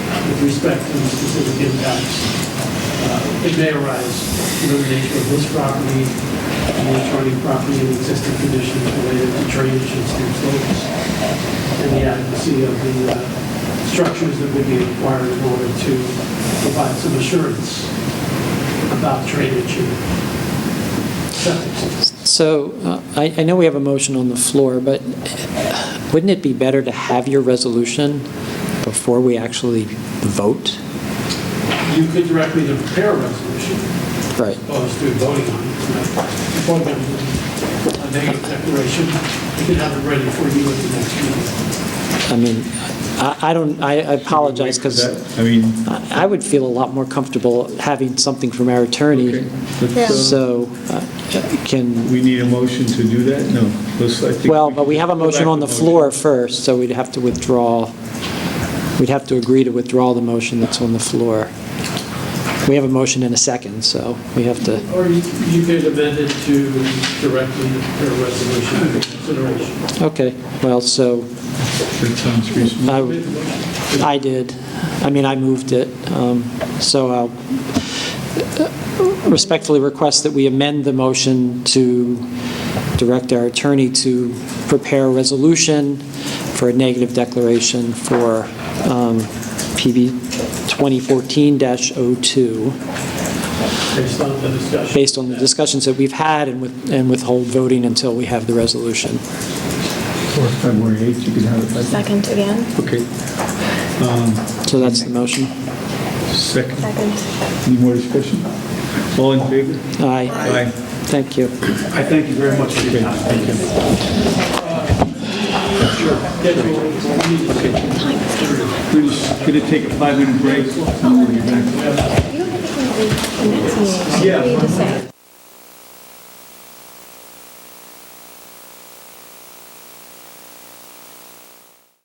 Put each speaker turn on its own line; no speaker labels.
with respect to the specific impacts uh, it may arise from the nature of this property, the adjoining property and existing conditions related to drainage and steep slopes, and the adequacy of the uh, structures that would be required in order to provide some assurance about drainage and septic systems.
So uh, I, I know we have a motion on the floor, but wouldn't it be better to have your resolution before we actually vote?
You could direct me to prepare a resolution,
Right.
opposed to voting on it tonight. Before then, a negative declaration, we can have it ready for you at the next meeting.
I mean, I, I don't, I I apologize because
I mean,
I I would feel a lot more comfortable having something from our attorney.
okay, let's, uh,
So uh, can,
we need a motion to do that? No, let's, I think.
well, but we have a
go back
motion on
to
the floor
motion.
first, so we'd have to withdraw, we'd have to agree to withdraw the motion that's on the floor. We have a motion and a second, so we have to.
Or you you could amend it to directly prepare a resolution for consideration.
Okay, well, so
That sounds reasonable.
I, I did. I mean, I moved it. Um, So I'll respectfully request that we amend the motion to direct our attorney to prepare a resolution for a negative declaration for um, PB 2014-02,
Based on the discussion.
based on the discussions that we've had and with- and withhold voting until we have the resolution.
Or February 8th, you can have it back.
Second again?
Okay,
So that's the motion.
second,
Second.
any more discussion? All in favor?
Aye. Thank you.
I thank you very much for your time.
We're just going to take a five-minute break. and we'll be back.
You don't have to leave the next meeting.
Yeah.
You just say.